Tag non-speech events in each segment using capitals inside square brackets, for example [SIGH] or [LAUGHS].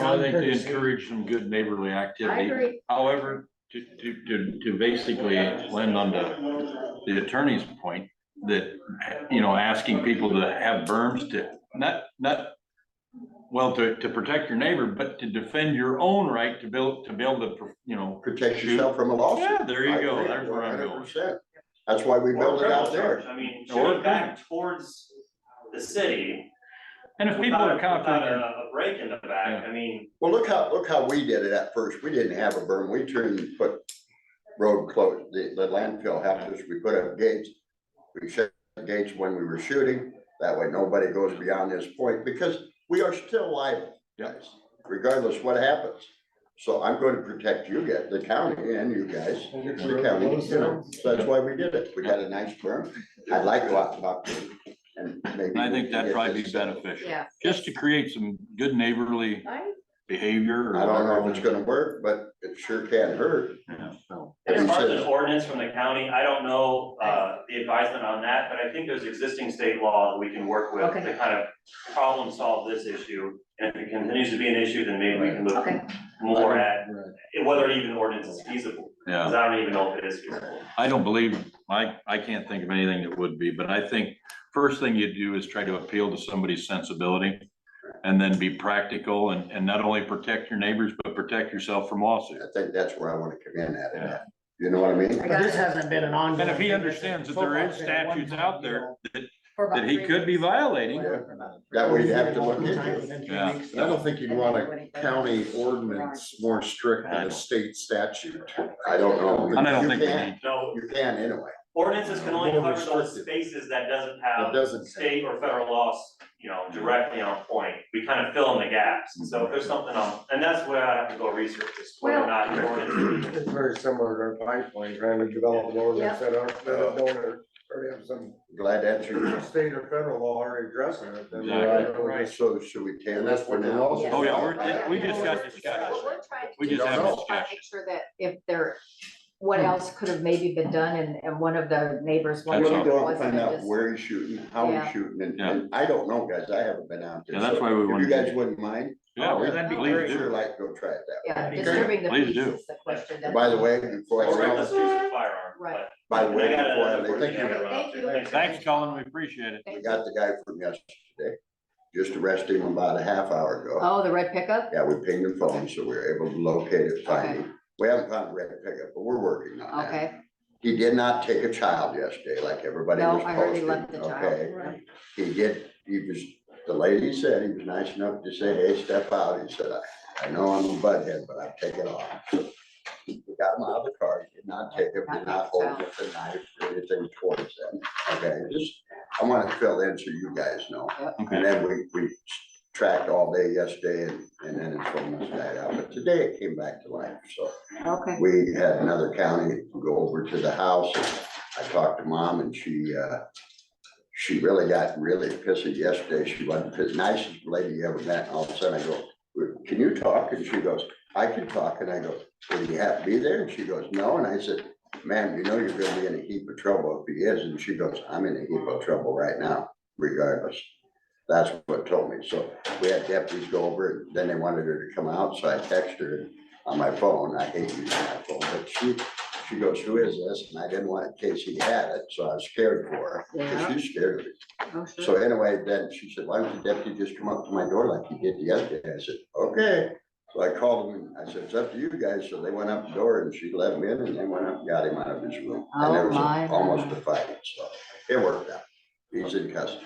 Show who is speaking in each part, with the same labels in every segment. Speaker 1: I think they
Speaker 2: courtesy.
Speaker 1: encourage some good neighborly
Speaker 3: I
Speaker 1: activity.
Speaker 3: agree,
Speaker 1: However, to, to, to, to basically lend on the, the attorney's point, that, you know, asking people to have berms to, not, not, well, to, to protect your neighbor, but to defend your own right to build, to build the, you know,
Speaker 4: protect yourself from a lawsuit.
Speaker 1: yeah, there you
Speaker 4: I
Speaker 1: go,
Speaker 4: agree,
Speaker 1: there's where I'm
Speaker 4: 100%.
Speaker 1: going.
Speaker 4: That's why we
Speaker 2: Or
Speaker 4: built it out
Speaker 2: criminal
Speaker 4: there.
Speaker 2: charge. I mean,
Speaker 1: Or
Speaker 2: shooting back towards the
Speaker 4: [LAUGHS]
Speaker 2: city.
Speaker 1: And if people
Speaker 2: without-
Speaker 1: are confident,
Speaker 2: Without a- a break in the back, I mean,
Speaker 4: Well, look how, look how we did it at first. We didn't have a berm. We turned and put road close, the, the landfill helped us. We put up gates. We shut the gates when we were shooting. That way nobody goes beyond this point because we are still liable, guys, regardless what happens. So I'm going to protect you guys, the county and you guys, the county, you know. So that's why we did it. We got a nice berm. I like lots of options and maybe.
Speaker 1: I
Speaker 4: we
Speaker 1: think that'd
Speaker 4: can get
Speaker 1: probably be
Speaker 4: this-
Speaker 1: beneficial,
Speaker 3: yeah.
Speaker 1: just to create some good neighborly
Speaker 3: I,
Speaker 1: behavior. or
Speaker 4: I don't know if it's
Speaker 1: whatever.
Speaker 4: gonna work, but it sure can hurt.
Speaker 1: Yeah, so.
Speaker 2: as
Speaker 4: He
Speaker 2: far as
Speaker 4: says-
Speaker 2: an ordinance from the county, I don't know, uh, the advisement on that, but I think there's existing state law that we can work with
Speaker 3: Okay.
Speaker 2: to kind of problem solve this issue. And if it continues to be an issue, then maybe we can look
Speaker 3: Okay.
Speaker 2: more at whether even ordinance is feasible,
Speaker 1: Yeah,
Speaker 2: because I don't even know if it is feasible.
Speaker 1: I don't believe, I, I can't think of anything that would be, but I think first thing you do is try to appeal to somebody's sensibility. And then be practical and, and not only protect your neighbors, but protect yourself from lawsuits.
Speaker 4: I think that's where I wanna come in at
Speaker 1: Yeah.
Speaker 4: it. You know what I mean?
Speaker 3: I
Speaker 5: But
Speaker 3: got
Speaker 5: this
Speaker 3: it
Speaker 5: hasn't been an ongoing.
Speaker 1: And if he
Speaker 5: thing.
Speaker 1: understands that there is
Speaker 5: Football's been a
Speaker 1: statutes
Speaker 5: one-time
Speaker 1: out there
Speaker 5: deal.
Speaker 1: that,
Speaker 3: for about
Speaker 1: that he
Speaker 3: three
Speaker 1: could be
Speaker 3: weeks.
Speaker 1: violating.
Speaker 4: That way you have to look
Speaker 5: One-time
Speaker 4: into it.
Speaker 5: within three
Speaker 1: Yeah.
Speaker 5: weeks.
Speaker 6: I don't think you'd want a county ordinance more strict
Speaker 1: I
Speaker 6: than
Speaker 1: don't.
Speaker 6: a state statute.
Speaker 4: I don't know.
Speaker 1: And I don't
Speaker 4: You
Speaker 1: think we
Speaker 4: can.
Speaker 1: need,
Speaker 2: No,
Speaker 4: You can anyway.
Speaker 2: Ordinances can only
Speaker 6: More
Speaker 2: cover those
Speaker 6: restrictive.
Speaker 2: spaces that doesn't
Speaker 6: That
Speaker 2: have
Speaker 6: doesn't.
Speaker 2: state or federal laws, you know, directly on point. We kind of fill in the gaps. And So if there's something on, and that's where I have to go research is whether or not your ordinance.
Speaker 7: It's very similar to our pipeline, trying to develop an ordinance that are, that are don't, or have some
Speaker 4: Glad that's your.
Speaker 7: state or federal law already addressing it. then we're
Speaker 1: Exactly.
Speaker 7: not really-
Speaker 4: So should we table
Speaker 6: And
Speaker 4: this
Speaker 6: that's
Speaker 4: for
Speaker 6: what the
Speaker 4: now?
Speaker 6: laws
Speaker 3: are.
Speaker 1: oh yeah, we're, we just got
Speaker 3: What
Speaker 1: discussion.
Speaker 3: we're trying to
Speaker 1: We
Speaker 3: do
Speaker 1: just Hmm.
Speaker 3: is
Speaker 1: have
Speaker 3: just try to
Speaker 1: discussion.
Speaker 3: Make sure that if there, what else could have maybe been done and, and one of the neighbors
Speaker 4: I'm
Speaker 1: That's
Speaker 3: wondered
Speaker 4: gonna
Speaker 3: if
Speaker 1: all.
Speaker 3: it
Speaker 4: go out and
Speaker 3: wasn't.
Speaker 4: find
Speaker 3: and
Speaker 4: out
Speaker 3: just-
Speaker 4: where he's shooting, how
Speaker 3: Yeah.
Speaker 4: he's shooting, and, and I don't know, guys. I haven't been out there.
Speaker 1: Yeah, that's
Speaker 4: So
Speaker 1: why we
Speaker 4: If
Speaker 1: wanted
Speaker 4: you
Speaker 1: to-
Speaker 4: guys wouldn't mind,
Speaker 1: Yeah, we
Speaker 3: That'd be
Speaker 1: believe
Speaker 4: I'd
Speaker 3: great.
Speaker 1: do.
Speaker 4: sure like to go try it out.
Speaker 3: Yeah,
Speaker 2: That'd be
Speaker 3: disturbing the
Speaker 1: Please
Speaker 3: peace
Speaker 1: do.
Speaker 3: is the question.
Speaker 4: And
Speaker 3: that-
Speaker 4: By the way, before I
Speaker 2: Or
Speaker 4: go,
Speaker 2: let's use a firearm.
Speaker 3: Right.
Speaker 4: by the way,
Speaker 2: I
Speaker 4: before
Speaker 2: got
Speaker 4: I
Speaker 2: another
Speaker 4: leave,
Speaker 2: question I gotta run
Speaker 3: Thank
Speaker 2: up to.
Speaker 3: you.
Speaker 2: Thanks.
Speaker 1: Thanks, Colin, we appreciate it.
Speaker 4: we
Speaker 3: Thank you.
Speaker 4: got the guy from yesterday. Just arrested him about a half hour ago.
Speaker 3: Oh, the red pickup?
Speaker 4: Yeah, we pinged the phone, so we were able to locate it, find him. We haven't found a red pickup, but we're working on that.
Speaker 3: Okay,
Speaker 4: He did not take a child yesterday, like everybody
Speaker 3: no,
Speaker 4: was
Speaker 3: I heard he
Speaker 4: posting,
Speaker 3: left the
Speaker 4: okay?
Speaker 3: child.
Speaker 4: He did, he was, the lady said, he was nice enough to say, hey, step out. He said, I, I know I'm a butthead, but I take it off. We got him out of the car, He did not take him, did not hold with the knife or anything towards them, okay? Just, I wanna fill in so you guys know.
Speaker 1: Okay.
Speaker 4: And then we, we tracked all day yesterday and, and then it's from this night out, but today it came back to life, so.
Speaker 3: Okay,
Speaker 4: We had another county go over to the house. I talked to mom and she, uh, she really got really pissy yesterday. She wasn't the nicest lady you ever met. All of a sudden I go, can you talk? And she goes, I can talk. And I go, well, do you have to be there? And she goes, no. And I said, ma'am, you know you're gonna be in a heap of trouble if he is. And she goes, I'm in a heap of trouble right now, regardless. That's what told me. So we had deputies go over and then they wanted her to come out. So I texted her on my phone. I hate using my phone, but she, she goes, who is this? And I didn't want it in case he had it, so I was scared for her. 'cause She's scared of it.
Speaker 3: oh,
Speaker 4: So
Speaker 3: sure.
Speaker 4: anyway, then she said, why don't the deputy just come up to my door like he did the other day? I said, okay. So I called him and I said, it's up to you guys. So they went up the door and she let him in and they went up and got him out of his room. And
Speaker 3: Oh,
Speaker 4: there was
Speaker 3: my.
Speaker 4: a- almost a fight, so it worked out. He's in custody.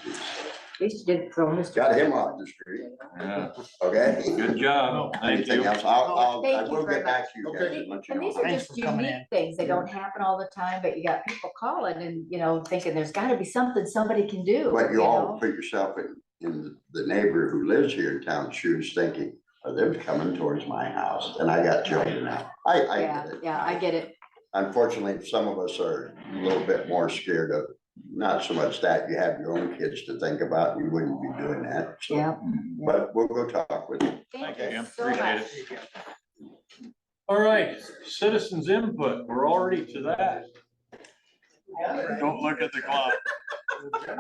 Speaker 3: At least you did throw Mr.
Speaker 4: Got him off the street,
Speaker 1: Yeah,
Speaker 4: okay?
Speaker 1: good job. Thank
Speaker 4: Anything
Speaker 1: you.
Speaker 4: else? I'll, I'll, I
Speaker 3: Thank you
Speaker 4: will
Speaker 3: very
Speaker 4: get back to you guys
Speaker 6: Okay.
Speaker 4: and let you
Speaker 3: And
Speaker 4: know.
Speaker 3: these are
Speaker 5: Thanks
Speaker 3: just
Speaker 5: for coming
Speaker 3: unique things that don't happen all the time, but you got people calling and, you know, thinking there's gotta be something somebody can do.
Speaker 4: But you all
Speaker 3: know?
Speaker 4: put yourself in, in the neighbor who lives here in town shoes thinking, are they coming towards my house? And I got children now. I, I
Speaker 3: Yeah,
Speaker 4: get it.
Speaker 3: yeah, I get it.
Speaker 4: Unfortunately, some of us are a little bit more scared of, not so much that, you have your own kids to think about, you wouldn't be doing that. so-
Speaker 3: Yeah.
Speaker 4: But we'll go talk with you.
Speaker 1: Thank
Speaker 3: Thank
Speaker 1: you,
Speaker 3: you
Speaker 1: Jim.
Speaker 3: so
Speaker 1: Appreciate
Speaker 3: much.
Speaker 1: it. All right, citizens input, we're already to that. Don't look at the clock.
Speaker 3: um,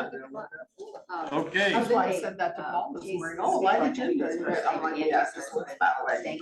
Speaker 1: Okay.
Speaker 3: Uh,
Speaker 5: Oh, That's why I said that to Paul this morning, oh, why did you do it? I'm like, yeah, this was about it.